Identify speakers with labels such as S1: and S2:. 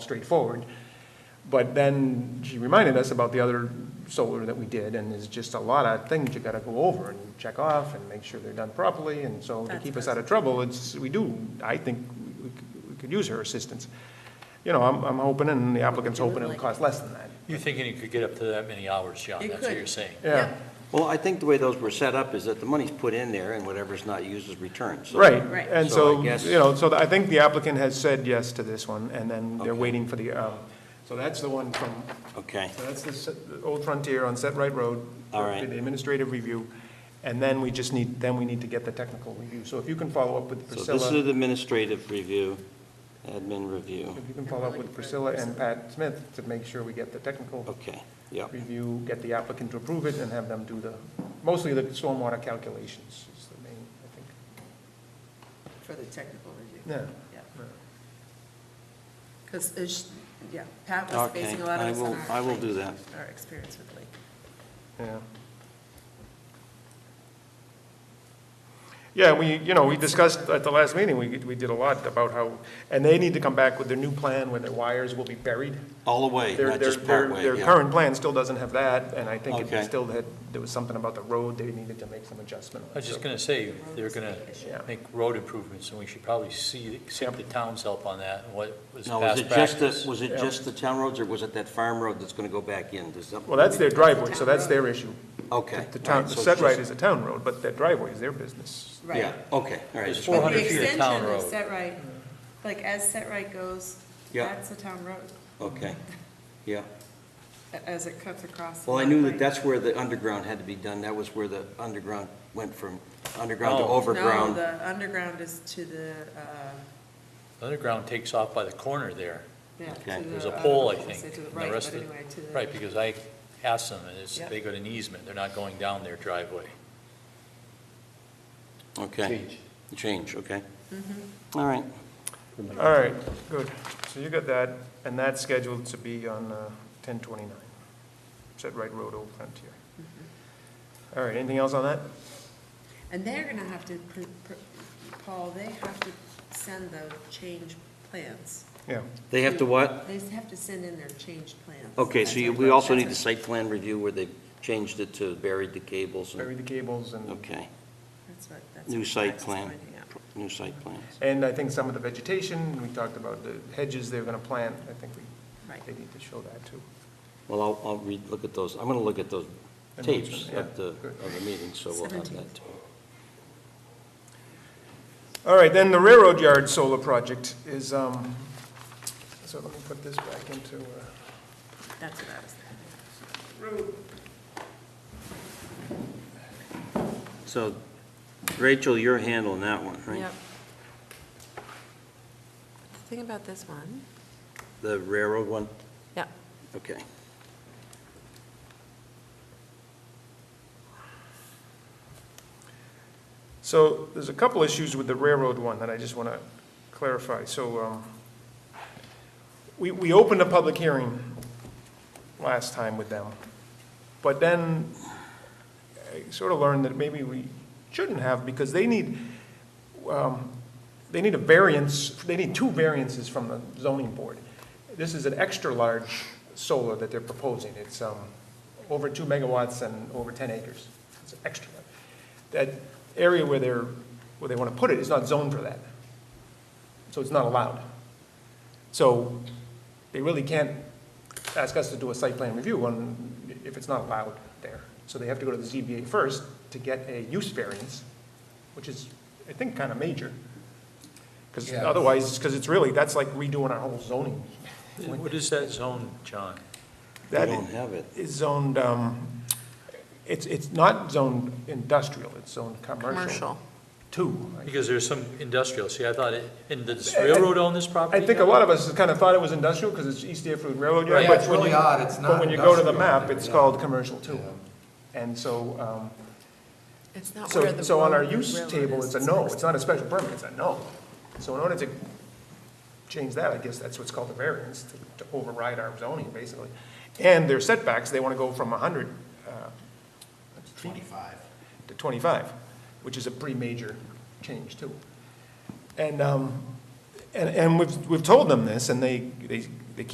S1: straightforward. But then she reminded us about the other solar that we did, and there's just a lot of things you gotta go over and check off and make sure they're done properly, and so to
S2: That's
S1: keep us out of trouble, it's, we do, I think we- we could- we could use her assistance. You know, I'm, I'm hoping, and the applicant's
S2: We would
S1: hoping it'll
S2: like-
S1: cost less than that.
S3: You're thinking you could get up to that many hours, John,
S2: You
S3: that's what
S2: could.
S3: you're saying.
S1: Yeah,
S4: Well, I think the way those were set up is that the money's put in there and whatever's not used is returned, so.
S1: right,
S2: Right.
S1: and
S4: So I
S1: so,
S4: guess-
S1: you know, so the- I think the applicant has said yes to this one, and then they're
S4: Okay.
S1: waiting for the, uh, so that's the one from
S4: Okay,
S1: So that's the se- the Old Frontier on Set Right Road.
S4: All right.
S1: The administrative review, and then we just need, then we need to get the technical review. So if you can follow up with
S4: so this
S1: Priscilla,
S4: is administrative review, admin review,
S1: if you can follow up with Priscilla and Pat Smith to make sure we get the technical
S4: okay, yep,
S1: review, get the applicant to approve it, and have them do the, mostly the stormwater calculations is the main, I think.
S2: For the technical review,
S1: Yeah.
S2: yeah.
S1: yeah.
S2: Because, yeah, Pat was
S4: okay,
S2: basing a lot of
S4: I
S2: this on
S4: will,
S2: our.
S4: I will
S2: lake-
S4: do that.
S2: Our experience with Lake.
S1: Yeah. Yeah, we, you know, we discussed at the last meeting, we, we did a lot about how, and they need to come back with their new plan where their wires will be buried.
S4: All the way,
S1: Their,
S4: not
S1: their,
S4: just
S1: their,
S4: partway,
S1: their
S4: yeah.
S1: current plan still doesn't have that, and I think it
S4: Okay.
S1: still had, there was something about the road, they needed to make some adjustment. on,
S3: I was just
S1: so-
S3: gonna say, they're gonna
S1: Yeah.
S3: make road improvements, and we should probably see, seek the town's help on that, and what was
S4: Now, was
S3: past
S4: it just,
S3: practice.
S4: the was it
S1: Yeah.
S4: just the town roads, or was it that farm road that's gonna go back in? Does that-
S1: Well, that's their driveway, so that's their issue.
S4: Okay.
S1: The
S4: all
S1: town,
S4: right,
S1: the
S4: so
S1: set right is
S4: just-
S1: a town road, but their driveway is their business.
S2: Right.
S4: Yeah, okay, all right.
S3: There's
S4: just
S3: four
S4: wanted
S2: The
S3: hundred feet of town
S2: extension of
S3: road.
S2: Set Right, like as Set Right goes,
S4: Yeah.
S2: that's the town road,
S4: Okay, yeah.
S2: a- as it cuts across.
S4: Well, I
S2: Lot
S4: knew
S2: Lake.
S4: that that's where the underground had to be done. That was where the underground went from underground to
S3: No.
S2: No,
S4: overground.
S2: the underground is to the, uh,
S3: Underground takes off by the corner there,
S2: yeah. to
S4: Okay.
S2: the,
S3: there's a
S2: uh,
S3: pole, I
S2: was gonna
S3: think,
S2: say To the
S3: and the
S2: right,
S3: rest
S2: but
S3: of it-
S2: anyway, to the.
S3: right, because I asked them, and it's,
S2: Yeah.
S3: they got an easement, they're not going down their driveway.
S4: Okay. Change. Change, okay. All right.
S1: All right, good. So you got that, and that's scheduled to be on uh, ten twenty-nine, Set Right Road Old Frontier. All right, anything else on that?
S2: And they're gonna have to, pr- pr- Paul, they have to send the change plans.
S1: Yeah.
S4: They have to what?
S2: They have to send in their change plans.
S4: Okay, so
S2: That's
S4: you-
S2: what-
S4: we also need the
S2: that's
S4: site plan review where they changed it to buried the cables
S1: Bury
S4: and,
S1: the cables and,
S4: okay,
S2: what- that's what- that's
S4: new
S2: what
S4: site
S2: Pat's
S4: plan,
S2: pointing out.
S4: new site plans.
S1: and I think some of the vegetation, we talked about the hedges they're gonna plant, I think we,
S2: Right.
S1: they need to show that too.
S4: Well, I'll, I'll read, look at those. I'm going to look at those tapes
S1: Announcement, yeah,
S4: of the,
S1: good.
S4: of the meeting, so we'll have that.
S2: 17th.
S4: too.
S1: All right, then the railroad yard solar project is, um, so let me put this back into, uh,
S2: That's what I was thinking.
S4: So Rachel, you're handling that one, right?
S5: Yep. The thing about this one,
S4: The railroad one?
S5: yeah,
S4: Okay.
S1: So there's a couple issues with the railroad one that I just want to clarify. So um, we, we opened a public hearing last time with them, but then I sort of learned that maybe we shouldn't have because they need, um, they need a variance, they need two variances from the zoning board. This is an extra-large solar that they're proposing. It's um, over two megawatts and over 10 acres. It's extra. That area where they're, where they want to put it is not zoned for that. So it's not allowed. So they really can't ask us to do a site plan review on, if it's not allowed there. So they have to go to the ZBA first to get a use variance, which is, I think, kind of major. Because
S3: Yeah.
S1: otherwise, because it's really, that's like redoing our whole zoning.
S3: Uh, What is that zone, John?
S4: We
S1: That-
S4: don't have it.
S1: is zoned, um, it's, it's not zoned industrial, it's zoned commercial.
S5: commercial.
S1: Two.
S3: Because there's some industrial, see, I thought, it- and does
S1: I- I-
S3: railroad own this property?
S1: Uh, I think a
S3: now?
S1: lot of us kind of thought it was industrial because it's East Deerfield Railroad Yard.
S3: Right.
S1: but
S6: Yeah, it's
S1: when
S6: really
S1: you-
S6: odd, it's
S1: But
S6: not
S1: when you go to the
S6: industrial.
S1: map, it's
S6: Yeah.
S1: called commercial two.
S6: Yeah.
S1: And so, um,
S5: It's not where
S1: so,
S5: the.
S1: so on our
S5: road-
S1: use
S5: railroad
S1: table,
S5: is.
S1: it's a no, it's not a special permit, it's a no. So in order to change that, I guess that's what's called a variance, to to override our zoning, basically. And their setbacks, they want to go from 100 uh,
S6: Twenty-five.
S1: to 25, which is a pretty major change too. And, um, and, and we've, we've told them this and they, they